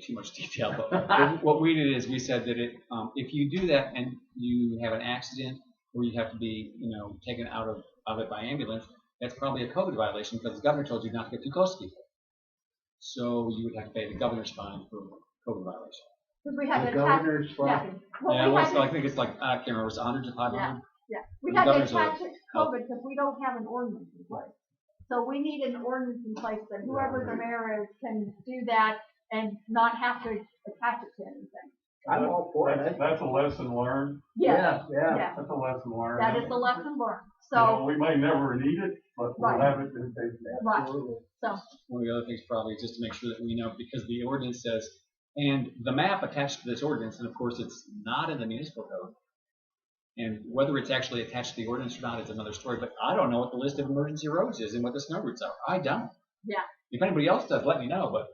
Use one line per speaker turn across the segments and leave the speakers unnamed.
too much detail, but what we did is we said that it, um, if you do that and you have an accident or you have to be, you know, taken out of, of it by ambulance, that's probably a COVID violation because the governor told you not to get too close to people. So you would have to pay the governor's fine for COVID violation.
Because we
The
haven't had,
governor's
yeah,
fine,
well,
Yeah,
we
well, so I
haven't,
think it's like, I can't remember, it's a hundred to five hundred?
yeah, we
the governor's
haven't had
orders.
COVID because we don't have an ordinance in place. So we need an ordinance in place that whoever the mayor is can do that and not have to attach it to anything.
I'm all for
That's-
it.
That's a lesson learned.
Yes,
Yeah,
yeah,
That's a lesson learned.
that is the lesson learned,
You know,
so,
We may never need it, but we'll
Right.
have it in case.
right,
absolutely.
so,
One of the other things probably is just to make sure that we know, because the ordinance says, and the map attached to this ordinance, and of course, it's not in the municipal code. And whether it's actually attached to the ordinance or not is another story, but I don't know what the list of emergency roads is and what the snow routes are. I don't.
Yeah.
If anybody else does, let me know, but,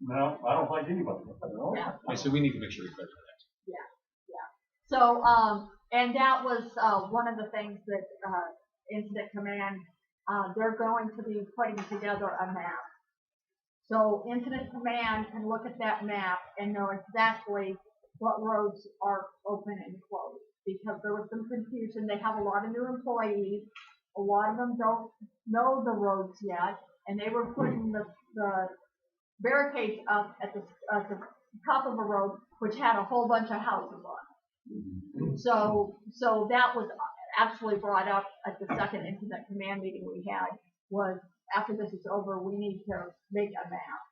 No, I don't think anybody. does.
yeah.
okay, so we need to make sure we clarify that.
So, um, and that was, uh, one of the things that, uh, Incident Command, uh, they're going to be putting together a map. So Incident Command can look at that map and know exactly what roads are open and closed. Because there was some confusion, they have a lot of new employees, a lot of them don't know the roads yet, and they were putting the, the barricades up at the, at the top of a road, which had a whole bunch of houses on it. So, so that was actually brought up at the second incident command meeting we had, was after this is over, we need to make a map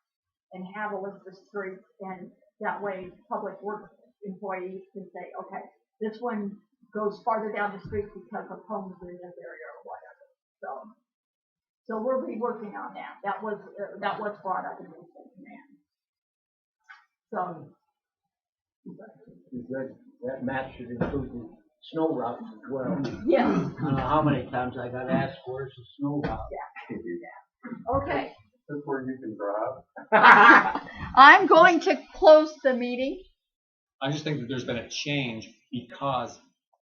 and have a list of streets, and that way public works employees can say, okay, this one goes farther down the street because of homes in this area or whatever, so. So we'll be working on that, that was, uh, that was brought up in the incident command. So,
That, that map should include the snow routes as well.
yeah.
I don't know how many times I got asked, where's the snow
Okay,
That's where you can drive.
route?
I'm going to close the meeting.
I just think that there's been a change because